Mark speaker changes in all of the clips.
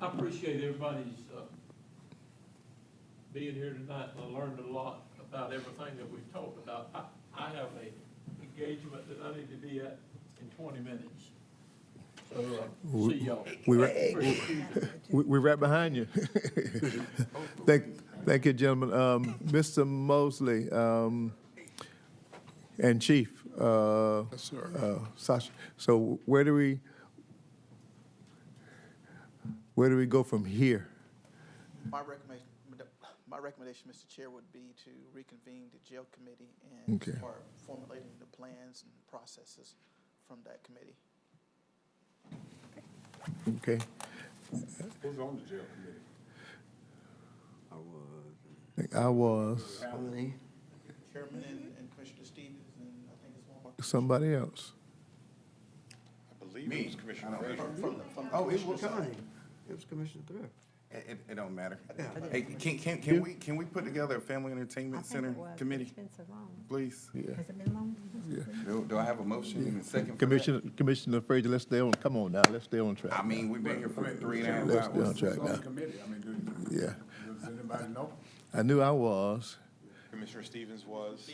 Speaker 1: I appreciate everybody's, uh, being here tonight. I learned a lot about everything that we've talked about. I, I have a engagement that I need to be at in twenty minutes. So, uh, see y'all.
Speaker 2: we were-
Speaker 1: Appreciate you.
Speaker 2: We, we're right behind you. Thank, thank you, gentlemen. Um, Mr. Mosley, um, and Chief, uh,
Speaker 3: Yes, sir.
Speaker 2: uh, Sasha, so where do we, where do we go from here?
Speaker 4: My recommendation, my recommendation, Mr. Chair, would be to reconvene the jail committee and
Speaker 2: Okay.
Speaker 4: start formulating the plans and processes from that committee.
Speaker 2: Okay,
Speaker 3: Who's on the jail committee?
Speaker 2: I was,
Speaker 4: Chairman and and Commissioner Stevens, and I think it's one more.
Speaker 2: somebody else.
Speaker 3: I believe it was Commissioner Frazier.
Speaker 4: From- from the- from the
Speaker 5: Oh, it
Speaker 4: commissioner's
Speaker 5: was,
Speaker 4: side.
Speaker 5: it was Commissioner Thrift.
Speaker 6: It, it- it don't matter.
Speaker 5: Yeah.
Speaker 6: Hey, can, can, can we, can we put together a family entertainment center committee, please?
Speaker 2: Yeah.
Speaker 7: Has it been long?
Speaker 6: Do, do I have a motion and a second? for that?
Speaker 2: Commissioner, Commissioner Frazier, let's stay on, come on now, let's stay on track.
Speaker 6: I mean, we've been here for three and a
Speaker 2: Let's
Speaker 6: half
Speaker 2: stay on
Speaker 6: hours.
Speaker 2: track
Speaker 3: Who's on the
Speaker 2: now.
Speaker 3: committee? I mean, do-
Speaker 2: Yeah,
Speaker 3: does anybody know?
Speaker 2: I knew I was.
Speaker 8: Commissioner Stevens was.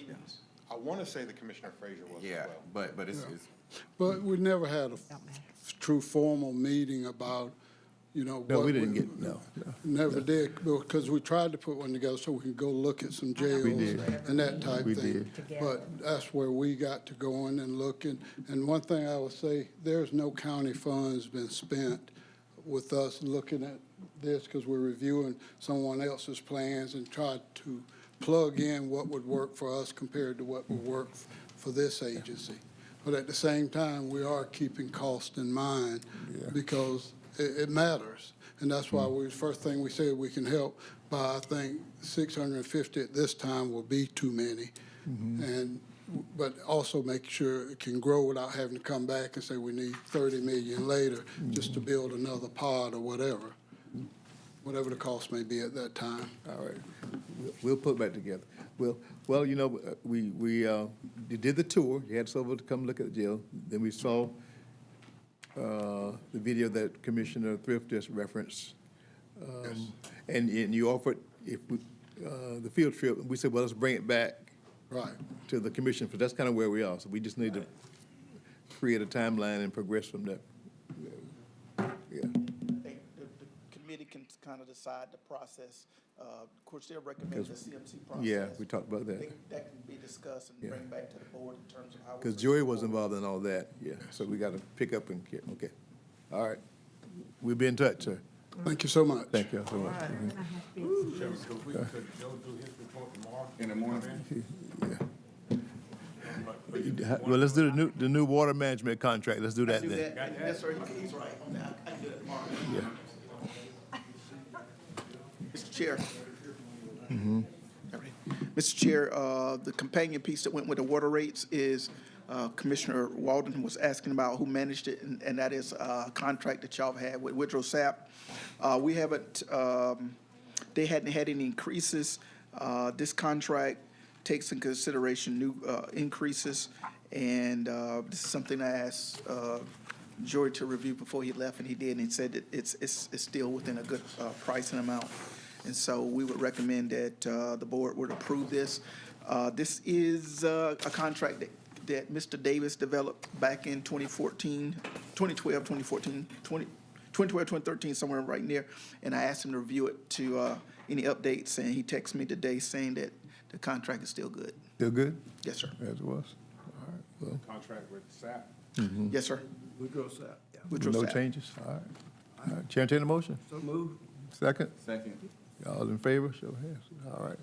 Speaker 8: I want to say the Commissioner Frazier was as
Speaker 6: Yeah,
Speaker 8: well.
Speaker 6: but, but it's, it's,
Speaker 9: But we never had a f-
Speaker 7: matter.
Speaker 9: true formal meeting about, you know.
Speaker 2: No,
Speaker 9: what
Speaker 2: we didn't get, no, no.
Speaker 9: Never did, because we tried to put one together so we could go look at some jails
Speaker 2: did.
Speaker 9: and that type
Speaker 2: We
Speaker 9: thing.
Speaker 7: did.
Speaker 9: But that's where we got to going and looking. And one thing I would say, there's no county funds been spent with us looking at this because we're reviewing someone else's plans and tried to plug in what would work for us compared to what would work f- for this agency. But at the same time, we are keeping cost in mind because it, it matters. And that's why we, first thing we said, we can help by, I think, 650 at this time will be too many. And, but also make sure it can grow without having to come back and say we need 30 million later just to build another pod or whatever, whatever the cost may be at that time.
Speaker 2: All right, We'll- we'll put back together. Well, well, you know, uh, we, we, uh, you did the tour, you had someone to come look at the jail, then we saw, uh, the video that Commissioner Thrift just referenced. Um, And, and you offered, if, we- uh, the field trip, we said, well, let's bring it back
Speaker 9: Right.
Speaker 2: to the commission, because that's kind of where we are, so we just need to create a timeline and progress from there. Yeah.
Speaker 4: I think the, the committee can kind of decide the process. Uh, Of course, they'll recommend the CMC process.
Speaker 2: Yeah, we talked about
Speaker 4: I
Speaker 2: that.
Speaker 4: think that can be discussed and
Speaker 2: Yeah.
Speaker 4: bring back to the board in terms of how. we
Speaker 2: Because
Speaker 4: bring
Speaker 2: Joey
Speaker 4: it
Speaker 2: was
Speaker 4: forward.
Speaker 2: involved in all that, yeah, so we got to pick up and get, okay. All right, we'll be in touch, sir.
Speaker 9: Thank you so much.
Speaker 2: Thank you all so much.
Speaker 7: I have been.
Speaker 3: Chairman, could we, could Joe do his report tomorrow?
Speaker 6: in the morning.
Speaker 2: Yeah. Well, let's do the new, the new water management contract, let's do that
Speaker 4: Do
Speaker 2: then.
Speaker 4: that, and yes, sir, he- he's right on that. I can do it tomorrow. Mr. Chair.
Speaker 2: Mm-hmm.
Speaker 4: All right. Mr. Chair, uh, the companion piece that went with the water rates is uh, Commissioner Walden was asking about who managed it, and and that is uh, a contract that y'all had with Woodrow Sapp. Uh, We haven't, um, they hadn't had any increases. Uh, This contract takes in consideration new uh, increases, and uh, this is something I asked uh, Jory to review before he left, and he did, and he said that it's, it's it's still within a good uh, price and amount. And so we would recommend that uh, the board would approve this. Uh, This is uh, a contract that, that Mr. Davis developed back in 2014, 2012, 2014, 20 2012, 2013, somewhere right near. And I asked him to review it to uh, any updates, and he texted me today saying that the contract is still good.
Speaker 2: Still good?
Speaker 4: Yes, sir.
Speaker 2: As was. All right, well,
Speaker 3: Contract with SAP.
Speaker 4: Yes, sir.
Speaker 5: Woodrow Sapp. Yeah.
Speaker 4: Woodrow
Speaker 2: no
Speaker 4: Sapp.
Speaker 2: changes, all right. All right, Chair, entertain a motion,
Speaker 5: So move.
Speaker 2: second,
Speaker 6: Second.
Speaker 2: all in favor, show of hands, all right.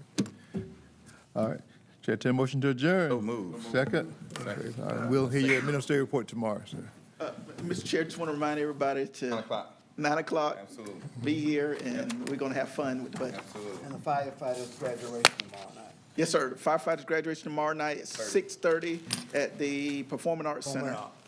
Speaker 2: All right, Chair, entertain a motion to adjourn.
Speaker 6: So moved.
Speaker 2: Second, All right, we'll hear your administrative report tomorrow, sir.
Speaker 4: Uh, Mr. Chair, just want to remind everybody to.
Speaker 6: Nine o'clock.
Speaker 4: Nine o'clock.
Speaker 6: Absolutely.
Speaker 4: Be here, and we're going to have fun with the budget.
Speaker 6: Absolutely.
Speaker 5: And the firefighters graduation tomorrow night.
Speaker 4: Yes, sir. Firefighters graduation tomorrow night at six thirty at the Performing Arts Center.
Speaker 5: Arts.